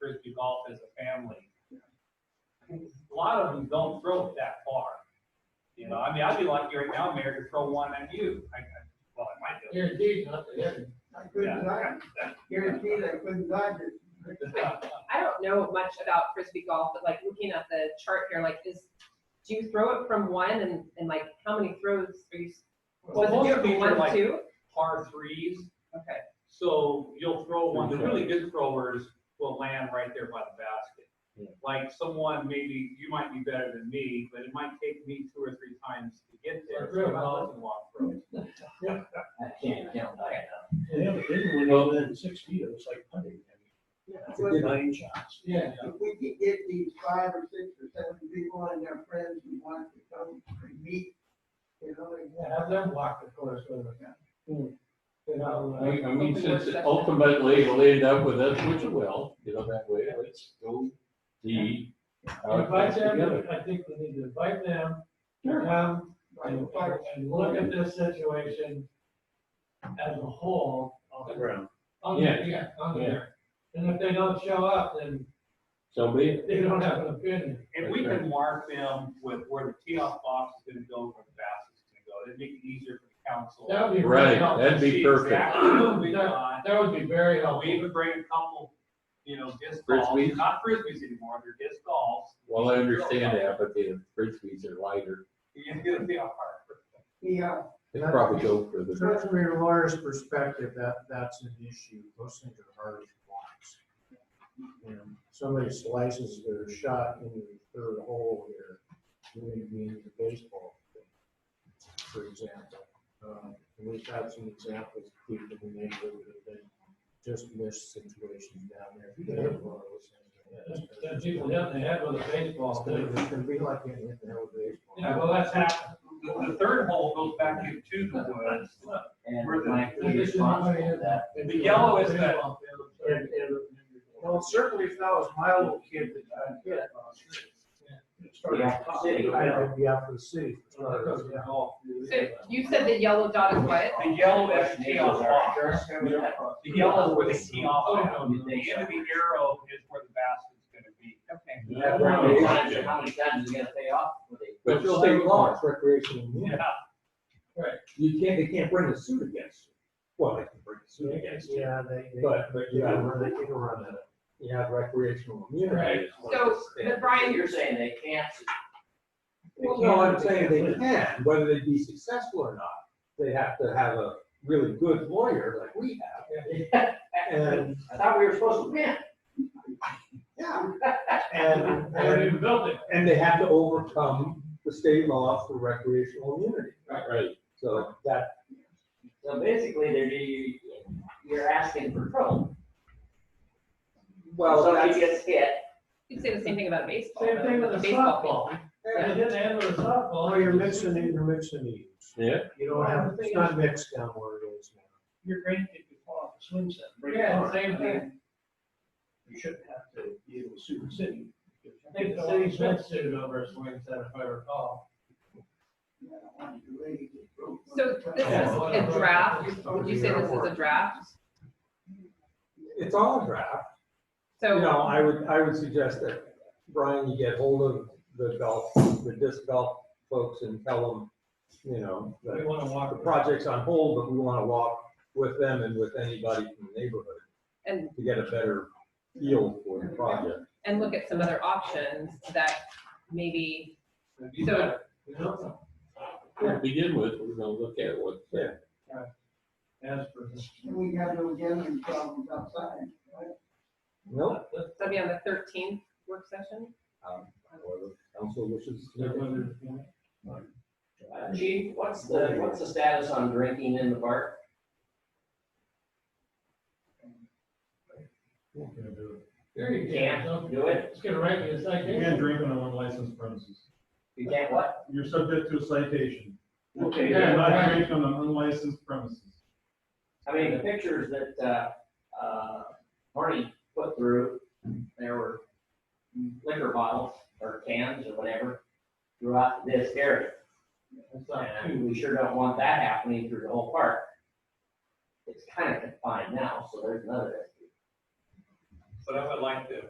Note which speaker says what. Speaker 1: to golf as a family. A lot of them don't throw it that far. You know, I mean, I'd be lucky right now, Mayor, to throw one at you. I, I, well, I might do.
Speaker 2: Guaranteed not to hit.
Speaker 3: I couldn't dodge, guaranteed I couldn't dodge it.
Speaker 4: I don't know much about frisbee golf, but like looking at the chart here, like is, do you throw it from one and, and like how many throws are you? s-
Speaker 1: Well,
Speaker 4: Was
Speaker 1: most
Speaker 4: it
Speaker 1: of these
Speaker 4: from
Speaker 1: are
Speaker 4: one,
Speaker 1: like-
Speaker 4: to two?
Speaker 1: Par threes,
Speaker 4: Okay,
Speaker 1: So you'll throw one, the really good throwers will land right there by the basket. Like someone, maybe, you might be better than me, but it might take me two or three times to get there.
Speaker 2: Or throw it.
Speaker 1: so I'll let you walk through.
Speaker 2: I can't count that.
Speaker 5: They have a big one over there in six feet, it's like putting.
Speaker 3: If we-
Speaker 5: Nine shots.
Speaker 2: Yeah.
Speaker 3: if we could get these five or six or seven people and their friends who want to come and meet, you know, and
Speaker 2: Yeah, have them walk the course with us. You know. uh,
Speaker 6: I I mean, since it ultimately it'll end up with us, which it will, you know, that way, let's go see. how it
Speaker 2: Invite
Speaker 6: comes together.
Speaker 2: them, I think we need to invite them, to come and, and look at this situation as a whole. on- On the,
Speaker 6: Yeah.
Speaker 2: yeah, on there. And if they don't show up, then
Speaker 6: So be it.
Speaker 2: they don't have an opinion.
Speaker 1: And we can mark them with where the tee off box is gonna go, where the basket's gonna go. It'd make it easier for the council.
Speaker 2: That would be very
Speaker 6: Right,
Speaker 2: helpful.
Speaker 6: that'd be
Speaker 1: See
Speaker 6: perfect.
Speaker 1: exactly what we got.
Speaker 2: That would be very
Speaker 1: You know, we
Speaker 2: helpful.
Speaker 1: even bring a couple, you know, disc golfs,
Speaker 6: Frisbees.
Speaker 1: not frisbees anymore, they're disc golfs.
Speaker 6: Well, I understand that, but the frisbees are lighter.
Speaker 1: You're gonna be a hard.
Speaker 3: the, uh,
Speaker 6: They probably go for the,
Speaker 7: From your lawyer's perspective, that, that's an issue, those things are hard to watch. And Somebody slices their shot in the third hole here, moving me into baseball, for example. Um, and We've had some examples, of people who may have been just missed situations down there. If you can have one of those things, yeah,
Speaker 2: Then people hit in the head with a baseball, too.
Speaker 7: It's gonna be like getting hit in the head with a baseball.
Speaker 2: Yeah, well, that's happened.
Speaker 1: The the third hole goes back into the woods.
Speaker 8: And might be responsible for that.
Speaker 1: The yellow is that-
Speaker 7: And, and, well, certainly if that was my little kid that I hit.
Speaker 8: Yeah, the city,
Speaker 7: I would be out for the city.
Speaker 5: uh,
Speaker 4: so you said the yellow dot is what?
Speaker 1: The yellow is the tee off box. The yellow is where the tee
Speaker 2: Oh,
Speaker 1: off
Speaker 2: no,
Speaker 1: box.
Speaker 2: no.
Speaker 1: The end of the arrow is where the basket's gonna be.
Speaker 4: Okay.
Speaker 8: How many times, how many times is it gonna pay off for the?
Speaker 6: but you'll take one.
Speaker 7: recreational
Speaker 1: Yeah,
Speaker 7: You can't, they can't bring a suit against you. Well, they can bring a suit against you. Yeah, they. But, but you can run, they can run that. You have recreational immunity.
Speaker 4: So, but Brian,
Speaker 8: You're saying they can't,
Speaker 7: Well, no, I'm saying they can, whether they be successful or not, they have to have a really good lawyer like we have. And,
Speaker 8: I thought we were supposed to win.
Speaker 7: yeah, and,
Speaker 2: They haven't
Speaker 7: and
Speaker 2: even built it.
Speaker 7: And they have to overcome the state law for recreational immunity.
Speaker 6: Right.
Speaker 7: So that,
Speaker 8: So basically, they're, you, you're asking for trouble.
Speaker 7: well,
Speaker 8: Somebody
Speaker 7: that's,
Speaker 8: gets hit,
Speaker 4: you could say the same thing about baseball.
Speaker 2: Same thing with the
Speaker 4: Baseball.
Speaker 2: softball. They
Speaker 7: yeah.
Speaker 2: hit in the head with a softball.
Speaker 7: well, you're mixing it, you're mixing it.
Speaker 6: Yeah,
Speaker 7: You don't have, it's not mixed down where it is now.
Speaker 5: Your grandkid could fall off a swing set. and break
Speaker 2: Yeah,
Speaker 5: an arm.
Speaker 2: same thing.
Speaker 5: You shouldn't have to be able to sue the city.
Speaker 2: I think the city's been sued over a swing set, if I recall.
Speaker 3: I don't want to do anything.
Speaker 4: So this is a draft, would you say this is a draft?
Speaker 7: It's all a draft. You
Speaker 4: So,
Speaker 7: know, I would, I would suggest that, Brian, you get hold of the golf, the disc golf folks and tell them, you know,
Speaker 2: We
Speaker 7: that
Speaker 2: wanna
Speaker 7: the
Speaker 2: walk.
Speaker 7: project's on hold, but we want to walk with them and with anybody from the neighborhood
Speaker 4: and,
Speaker 7: to get a better feel for the project.
Speaker 4: and look at some other options that maybe,
Speaker 2: It'd be
Speaker 4: So-
Speaker 2: better, you know,
Speaker 6: to begin with, we're gonna look at what,
Speaker 2: as for this.
Speaker 3: And we got no gambling problems outside, right?
Speaker 7: Nope.
Speaker 4: that'd be on the thirteenth work session?
Speaker 6: 啊
Speaker 7: Um, However, council wishes.
Speaker 8: Uh, Chief, what's the, what's the status on drinking in the park?
Speaker 2: There you
Speaker 8: Can't
Speaker 2: go.
Speaker 8: do it.
Speaker 2: It's gonna rank you a citation.
Speaker 9: drinking on unlicensed premises.
Speaker 8: You can't what?
Speaker 9: You're subject to a citation.
Speaker 5: Okay.
Speaker 9: You cannot
Speaker 2: right.
Speaker 9: drink on an unlicensed premises.
Speaker 8: I mean, the pictures that, uh, uh, Marty put through, there were liquor bottles or cans or whatever throughout this area.
Speaker 2: It's not too-
Speaker 8: And we sure don't want that happening through the whole park. It's kind of confined now, so there's another issue.
Speaker 1: but I would like to